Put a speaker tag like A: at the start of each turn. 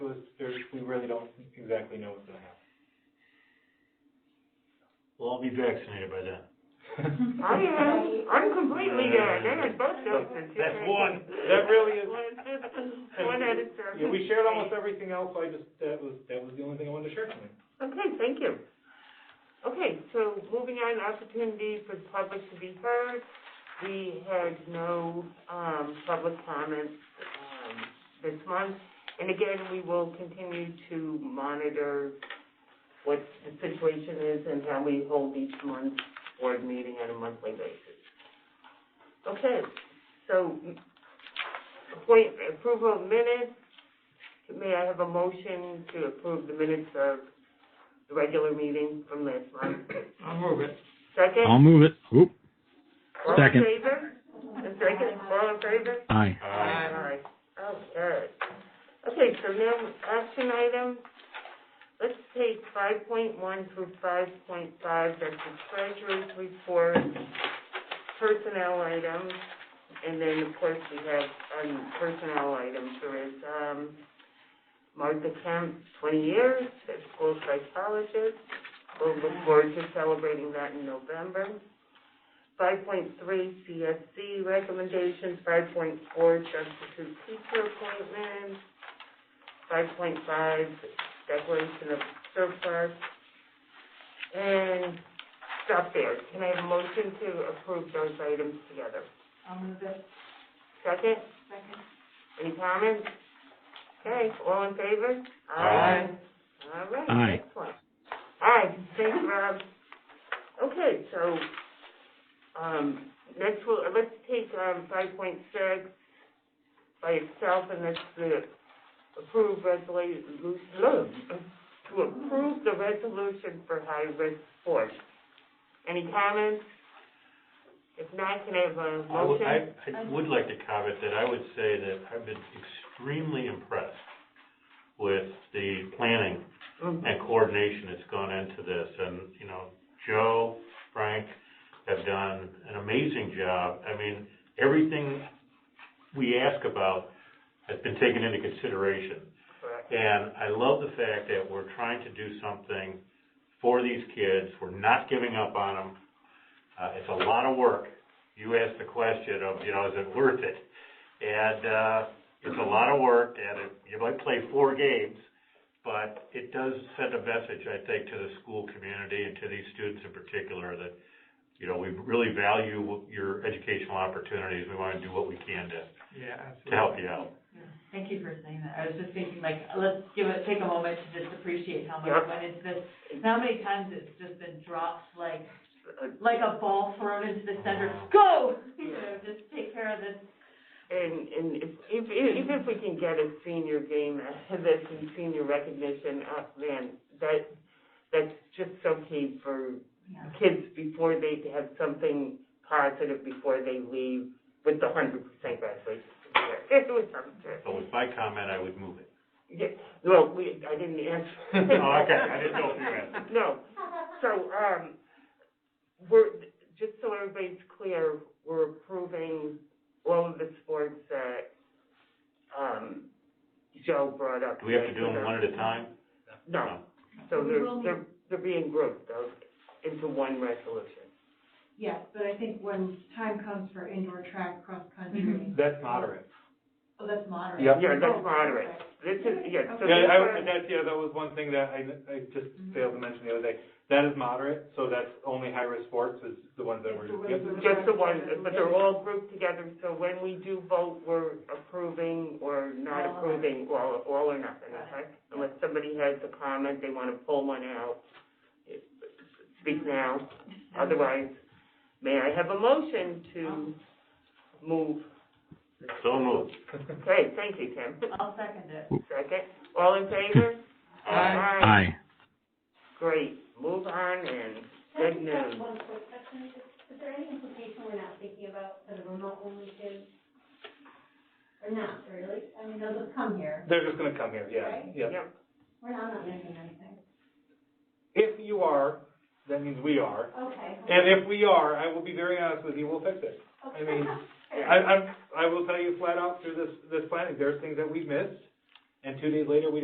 A: really don't exactly know what's gonna
B: Well, I'll be vaccinated by then.
A: happen.
C: I am, I'm completely, uh, done with both doses.
B: That's one.
A: That really is-
C: One assist- one at a time.
A: Yeah, we shared almost everything else, I just, that was, that was the only thing I wanted to share tonight.
C: Okay, thank you. Okay, so moving on, opportunity for the public to be heard. We had no, um, public comments, um, this month. And again, we will continue to monitor what the situation is and how we hold each month's board meeting on a monthly basis. Okay, so, appoint, approval of minutes. May I have a motion to approve the minutes of the regular meeting from last month.
B: I'll move it.
C: 2nd
D: I'll move it. Oop, Second.
C: All in favor? A second, all in favor?
D: aye.
C: Aye. Okay. Okay, so now, action item, let's take five point one through five point five, that's the treasurer's report, personnel items, and then, of course, we have, um, personnel items, there is, um, Martha Kemp, twenty years, a school psychologist, we'll look forward to celebrating that in November. Five point three, CSC recommendations, five point four, substitute teacher appointments, five point five, declaration of surplus, and stop there. Can I have a motion to approve those items together? I'll move it. Second? Second. Any comments? Okay, all in favor?
B: Aye.
C: All right,
D: Aye.
C: excellent. Aye, thanks, Rob. Okay, so um, next we'll, uh, let's take, um, five point six by itself, and that's the approve resolution, to approve the resolution for high-risk sports. Any comments? If not, can I have a
B: I would, I,
C: motion?
B: I would like to comment that I would say that I've been extremely impressed with the planning
C: Mhm.
B: and coordination that's gone into this. And, you know, Joe, Frank have done an amazing job. I mean, everything we ask about has been taken into consideration.
C: Correct.
B: And I love the fact that we're trying to do something for these kids. We're not giving up on them. Uh, it's a lot of work. You asked the question of, you know, is it worth it? And, uh, it's a lot of work and it, you might play four games, but it does send a message, I think, to the school community and to these students in particular that, you know, we really value your educational opportunities. We want to do what we can to,
E: Yeah, absolutely.
B: to help you out.
F: Thank you for saying that. I was just thinking, like, let's give it, take a moment to just appreciate how much
C: Yep.
F: went into this. And how many times it's just been dropped, like, like a ball thrown into the center, go! You know, just take care of this.
C: And, and if, if, even if we can get a senior game, that's in senior recognition, uh, man, that, that's just so key for
F: Yeah.
C: kids before they have something positive before they leave with the hundred percent graduation. certificate. It was something.
B: So with my comment, I would move it.
C: Yeah, well, we, I didn't answer.
B: Oh, okay, I didn't know if you answered.
C: No, so, um, we're, just so everybody's clear, we're approving all of the sports that, um, Joe brought up.
B: Do we have to do them one at a time?
C: No, so they're, they're, they're being grouped, though, into one resolution.
G: Yes, but I think when time comes for indoor track,
F: Mm-hmm.
G: cross-country,
A: That's moderate.
G: oh, that's moderate.
A: Yep.
C: Yeah, that's
G: Oh,
C: moderate.
G: okay.
C: This is, yeah, so.
A: Yeah,
C: this
A: I,
C: one- Mm-hmm.
A: I- that's, yeah, that was one thing that I, I just failed to mention the other day. That is moderate, so that's only high-risk sports is the ones that we're,
G: It's the
A: yep.
G: ones
C: Just the one, but they're all grouped together, so when we do vote, we're approving or not
F: All or-
C: approving, all, all or nothing, okay? Unless somebody has a comment, they wanna pull one out, speak now, otherwise, may I have a motion to move?
B: So moved.
C: Okay, thank you, Tim.
F: I'll second it.
C: Second, all in favor?
D: Aye.
C: Great, move on and good
H: Can I just
C: news.
H: ask one quick question? Is is there any implication we're not thinking about for the remote-only kids? Or not, really? I mean, they'll just come here.
A: They're just gonna come here, yeah,
H: Right.
A: yeah.
C: Yep.
H: We're not, not missing anything.
A: If you are, that means we are.
H: Okay.
A: And if we are, I will be very honest with you, we'll fix it. I mean, I, I'm, I will tell you flat out through this, this planning, there's things that we've missed, and two days later, we